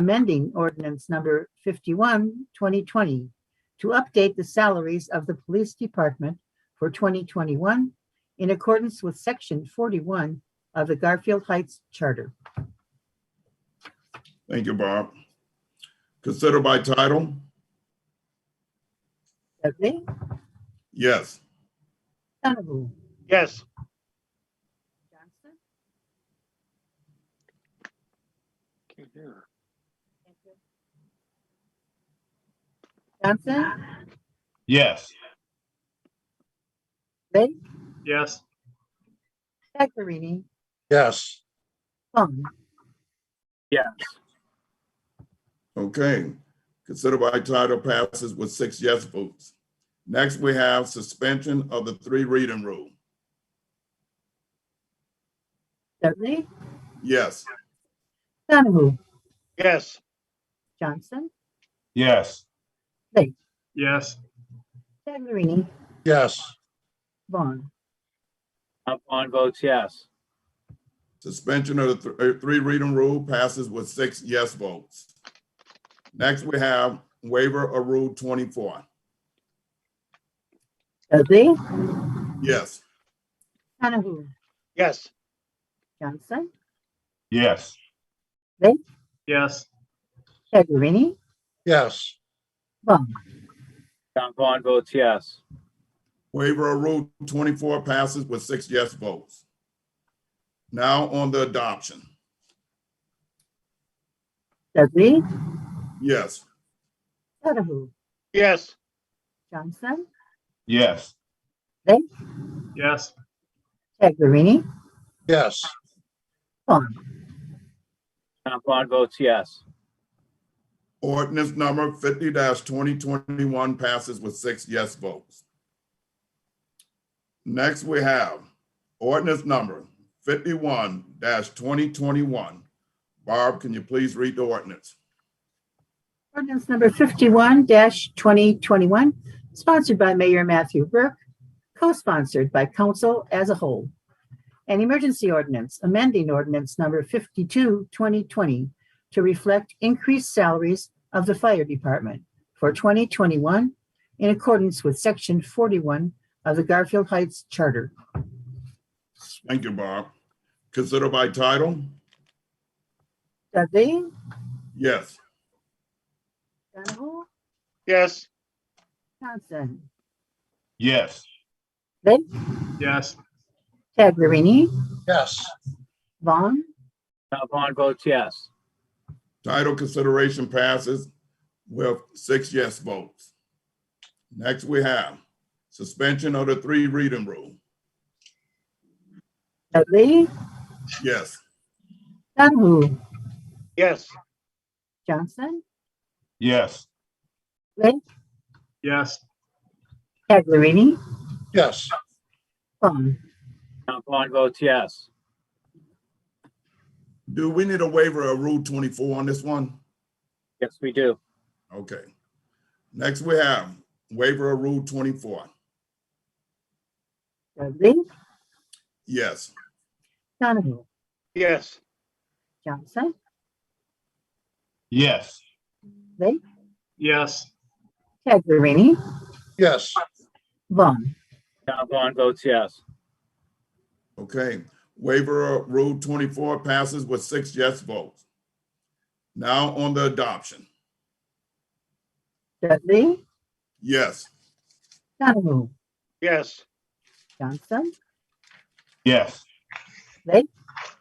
amending ordinance number 51, 2020, to update the salaries of the police department for 2021 in accordance with section 41 of the Garfield Heights Charter. Thank you, Bob. Consider by title? Dudley, Yes. Donahue, Yes, Johnson, Johnson, Yes. Blake, yes, Taglerini, Yes. Vaughn, Okay. Consider by title passes with six yes votes. Next, we have suspension of the three reading rule. Dudley, Yes. Donahue, yes, Johnson, Yes. yes. Taglerini, Yes. Vaughn, Count Vaughn votes yes. Suspension of the th- uh, three reading rule passes with six yes votes. Next, we have waiver of Rule 24. Dudley, Yes. Donahue, Yes. Johnson, Yes. Yes. Taglerini, Yes. Vaughn, Count Vaughn votes yes. Waiver of Rule 24 passes with six yes votes. Now on the adoption. Dudley, Yes. Donahue, Yes. Johnson, Yes. Yes. Taglerini, Yes. Vaughn, Count Vaughn votes yes. Ordinance number fifty twenty twenty-one passes with six yes votes. Next, we have ordinance number fifty-one twenty twenty-one. Barb, can you please read the ordinance? Ordinance number fifty-one twenty twenty-one, sponsored by Mayor Matthew Burke, co-sponsored by council as a whole. An emergency ordinance amending ordinance number 52-2020 to reflect increased salaries of the fire department for twenty twenty-one in accordance with section forty-one of the Garfield Heights Charter. Thank you, Barb. Consider by title? Dudley, Yes. Donahue, Yes. Johnson, Yes. Yes. Taglerini, Yes. Vaughn, Count Vaughn votes yes. Title consideration passes with six yes votes. Next, we have suspension of the three reading rule. Dudley, Yes. Donahue, Yes. Johnson, Yes. Yes. Taglerini, Yes. Vaughn, Count Vaughn votes yes. Do we need a waiver of Rule 24 on this one? Yes, we do. Okay. Next, we have waiver of Rule 24. Dudley, Yes. Donahue, Yes. Johnson, Yes. Yes. Taglerini, Yes. Vaughn, Count Vaughn votes yes. Okay. Waiver of Rule 24 passes with six yes votes. Now on the adoption. Dudley, Yes. Donahue, Yes. Johnson, Yes.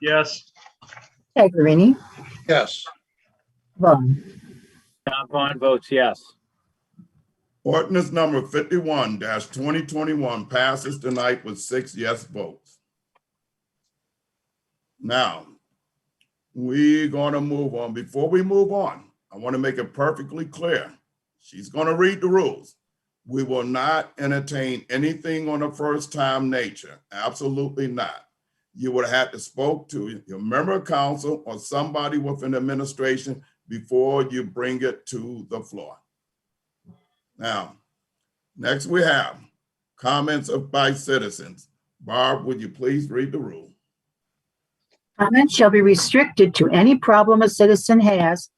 Yes. Taglerini, Yes. Vaughn, Count Vaughn votes yes. Ordinance number 51 2021 passes tonight with six yes votes. Now, we're going to move on. Before we move on, I want to make it perfectly clear. She's going to read the rules. We will not entertain anything on a first time nature. Absolutely not. You would have to spoke to your member of council or somebody within the administration before you bring it to the floor. Now, next we have comments of by citizens. Barb, would you please read the rule? Comments shall be restricted to any problem a citizen has